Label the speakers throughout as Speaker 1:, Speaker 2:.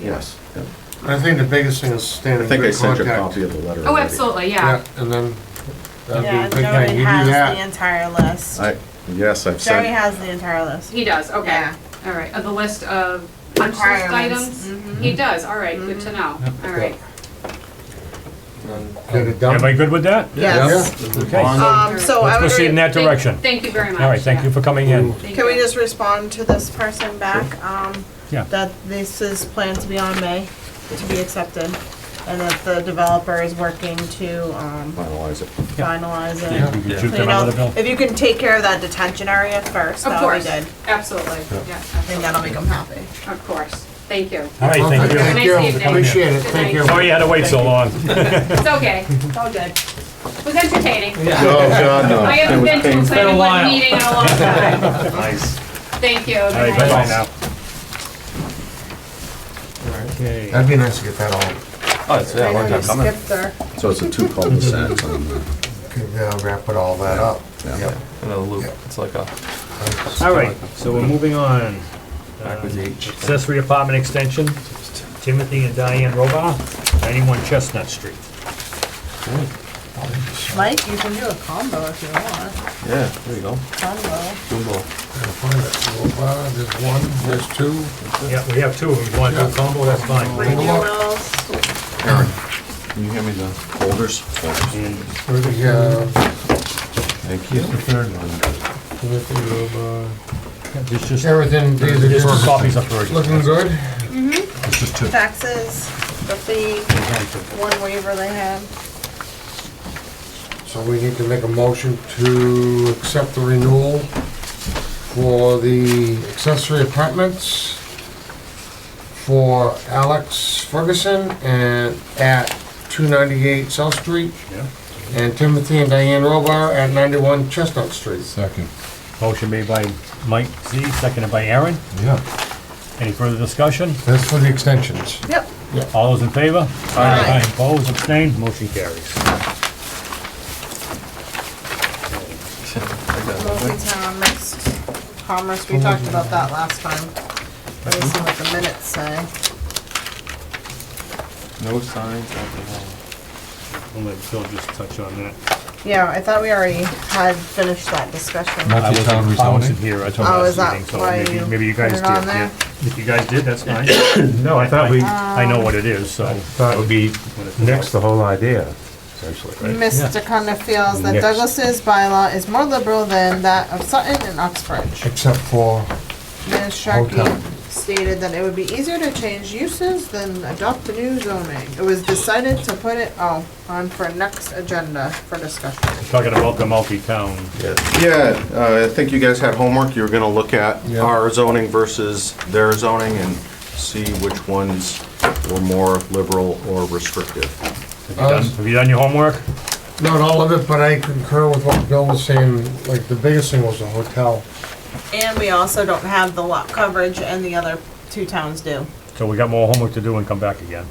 Speaker 1: yes. yeah.
Speaker 2: I think the biggest thing is staying
Speaker 1: I
Speaker 2: in
Speaker 1: think I
Speaker 2: good
Speaker 1: sent you a
Speaker 2: contact.
Speaker 1: copy of the letter.
Speaker 3: Oh,
Speaker 1: already.
Speaker 3: absolutely,
Speaker 2: Yeah,
Speaker 3: yeah.
Speaker 2: and then, uh,
Speaker 4: Yeah,
Speaker 2: that'd be a big
Speaker 4: Joey
Speaker 2: thing, you do
Speaker 4: has the
Speaker 2: that.
Speaker 4: entire list.
Speaker 1: I, yes, I've
Speaker 4: Joey
Speaker 1: sent,
Speaker 4: has the entire list.
Speaker 3: He does, okay.
Speaker 4: Yeah.
Speaker 3: All right, of the list of punch list
Speaker 4: Requirements. Mm-hmm.
Speaker 3: items? He does, all right, good to know, all right.
Speaker 2: Get it done.
Speaker 5: Everybody good with that?
Speaker 6: Yes.
Speaker 5: Okay.
Speaker 6: Um, so I
Speaker 5: Let's
Speaker 6: would,
Speaker 5: proceed in that
Speaker 3: Thank-
Speaker 5: direction.
Speaker 3: Thank you very much.
Speaker 5: All right, thank you for coming in.
Speaker 3: Thank
Speaker 4: can we
Speaker 3: you.
Speaker 4: just respond to this person back? Um,
Speaker 5: Yeah.
Speaker 4: that this is planned to be on May, to be accepted, and that the developer is working to, um,
Speaker 1: finalize it.
Speaker 4: finalize it.
Speaker 5: You can shoot them
Speaker 4: Clean
Speaker 5: out
Speaker 4: up.
Speaker 5: of the bill.
Speaker 4: If you can take care of that detention area first,
Speaker 3: Of
Speaker 4: that'll be
Speaker 3: course,
Speaker 4: good.
Speaker 3: absolutely, yeah,
Speaker 4: I think
Speaker 3: absolutely.
Speaker 4: that'll make them happy.
Speaker 3: of course, thank you.
Speaker 5: All right, thank you.
Speaker 3: Nice
Speaker 2: Thank you,
Speaker 3: evening.
Speaker 2: appreciate it,
Speaker 3: Good
Speaker 2: thank
Speaker 3: night.
Speaker 2: you.
Speaker 5: Sorry you had to wait so long.
Speaker 3: It's okay, it's all good. It was entertaining.
Speaker 1: Oh, God, no.
Speaker 3: I haven't
Speaker 1: It was
Speaker 3: been to a
Speaker 1: painful.
Speaker 3: planning board meeting in a long time.
Speaker 1: Nice.
Speaker 3: Thank you.
Speaker 5: All right,
Speaker 3: Good
Speaker 5: bye-bye
Speaker 3: night.
Speaker 5: now. Okay.
Speaker 2: That'd be nice to get that all,
Speaker 6: Oh, it's, yeah, long time coming.
Speaker 4: Skip there.
Speaker 1: So it's a two cul-de-sac on the.
Speaker 2: could, uh, wrap it all that up.
Speaker 1: Yeah.
Speaker 2: Yep.
Speaker 6: Another loop. It's like a
Speaker 5: All right, so we're moving on. Uh,
Speaker 6: backwards H.
Speaker 5: Accessory apartment extension, Timothy and Diane Robar, 91 Chestnut Street.
Speaker 4: Mike, you can do a combo if you want.
Speaker 6: Yeah, there you go.
Speaker 4: Combo.
Speaker 6: Jumbo.
Speaker 2: Gotta find it. So, uh, There's one, there's two.
Speaker 5: Yeah, we have two of them. You want to do a combo, that's fine.
Speaker 4: Mike, you will.
Speaker 6: Can you hear me though?
Speaker 1: Holders? Holders.
Speaker 5: And
Speaker 2: Where's the, uh,
Speaker 6: Thank you.
Speaker 2: the third one? Timothy Roba.
Speaker 5: There's just,
Speaker 2: uh, Everything, these are
Speaker 5: there's just
Speaker 2: just
Speaker 5: copies up for you.
Speaker 2: looking good.
Speaker 5: There's just two.
Speaker 4: Taxes, the fee, one waiver they had.
Speaker 2: So we need to make a motion to accept the renewal for the accessory apartments for Alex Ferguson and at 298 South Street.
Speaker 5: Yeah.
Speaker 2: And Timothy and Diane Robar at 91 Chestnut Street.
Speaker 7: Second.
Speaker 5: Motion made by Mike Z, seconded by Aaron.
Speaker 2: Yeah.
Speaker 5: Any further discussion?
Speaker 2: That's for the extensions.
Speaker 4: Yep.
Speaker 5: All those in favor? Aye. Opposed, abstained, motion carries.
Speaker 4: Multi-town mixed commerce, we talked about that last time. Let me see what the minutes say.
Speaker 6: No signs of
Speaker 5: I'll let Phil just touch on that.
Speaker 4: Yeah, I thought we already had finished that discussion.
Speaker 5: I wasn't-
Speaker 7: Multi-town
Speaker 5: I wasn't
Speaker 7: rezoning.
Speaker 5: here, I told
Speaker 4: Oh,
Speaker 5: you
Speaker 4: is that
Speaker 5: last meeting, so
Speaker 4: why
Speaker 5: maybe,
Speaker 4: you
Speaker 5: maybe you guys
Speaker 4: put
Speaker 5: did.
Speaker 4: it on
Speaker 5: yeah.
Speaker 4: there?
Speaker 5: If you guys did, that's fine. No, I thought we. I know what it is, so. Thought would be next the whole idea, essentially,
Speaker 4: Mr. Cunha feels that
Speaker 5: Mixed.
Speaker 4: Douglas's bylaw is more liberal than that of Sutton and Oxbridge.
Speaker 2: Except for,
Speaker 4: Ms. Sharkey
Speaker 2: Hotel.
Speaker 4: stated that it would be easier to change uses than adopt the new zoning. It was decided to put it, oh, on for next agenda for discussion.
Speaker 5: Talking about the multi-town.
Speaker 1: Yeah, uh, I think you guys had homework, you were gonna look at
Speaker 2: Yeah.
Speaker 1: our zoning versus their zoning and see which ones were more liberal or restrictive.
Speaker 5: Have you done- Have you done your homework?
Speaker 2: not all of it, but I concur with what Bill was saying, like, the biggest thing was the hotel.
Speaker 4: And we also don't have the lot coverage and the other two towns do.
Speaker 5: So we got more homework to do and come back again.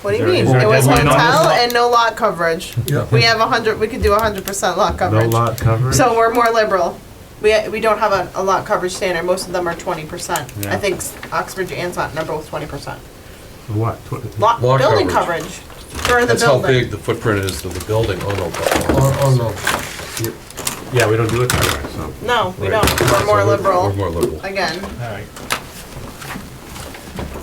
Speaker 4: What do you
Speaker 5: Is there-
Speaker 4: mean?
Speaker 5: is there
Speaker 4: It
Speaker 5: a
Speaker 4: was
Speaker 5: deadline on
Speaker 4: hotel
Speaker 5: this?
Speaker 4: and no lot coverage.
Speaker 2: Yeah.
Speaker 4: We have a hundred, we could do a hundred percent lot
Speaker 7: No
Speaker 4: coverage.
Speaker 7: lot coverage.
Speaker 4: So we're more liberal. We, we don't have a, a lot coverage standard. Most of them are twenty percent.
Speaker 5: Yeah.
Speaker 4: I think s- Oxbridge and Sutton are both twenty percent.
Speaker 7: What? Tw-
Speaker 4: Lot,
Speaker 8: Lot
Speaker 4: building
Speaker 8: coverage.
Speaker 4: coverage for the
Speaker 8: That's how
Speaker 4: building.
Speaker 8: big the footprint is of the building on Old
Speaker 2: Oh, oh, no.
Speaker 7: Yeah, we don't do it that way, so.
Speaker 4: No, we
Speaker 7: Right.
Speaker 4: don't. We're more
Speaker 8: We're
Speaker 4: liberal,
Speaker 8: more liberal.
Speaker 4: again.
Speaker 5: All right.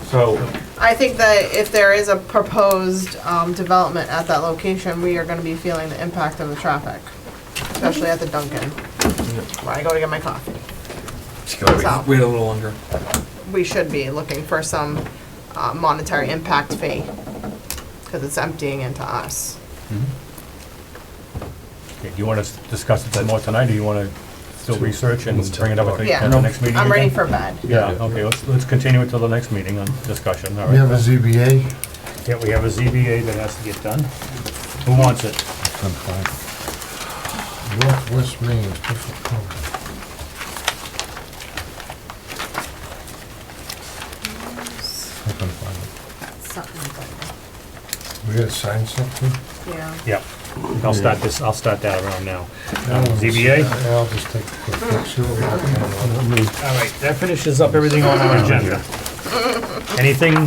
Speaker 7: So,
Speaker 4: I think that if there is a proposed, um, development at that location, we are gonna be feeling the impact of the traffic, especially at the Dunkin', where I go to get my coffee. So-
Speaker 6: Wait a little longer.
Speaker 4: We should be looking for some, uh, monetary impact fee, cause it's emptying into us.
Speaker 5: Okay, Do you want to discuss it some more tonight, or you want to still research and bring it up at the
Speaker 4: Yeah.
Speaker 5: at the next meeting?
Speaker 4: I'm ready
Speaker 5: again?
Speaker 4: for bed.
Speaker 5: Yeah, okay, let's, let's continue until the next meeting on discussion, all
Speaker 2: We have a
Speaker 5: right.
Speaker 2: ZBA.
Speaker 5: Yeah, we have a ZBA that has to get done. Who wants it?
Speaker 7: I'm fine.
Speaker 2: Northwest Maine special permit.
Speaker 7: I can find
Speaker 2: We gotta sign something?
Speaker 4: Yeah.
Speaker 5: Yep, I'll start this, I'll start that around now. Um,
Speaker 2: Yeah,
Speaker 5: ZBA?
Speaker 2: I'll just take a quick look, see what we got going on.
Speaker 5: All right, that finishes up everything on our agenda. anything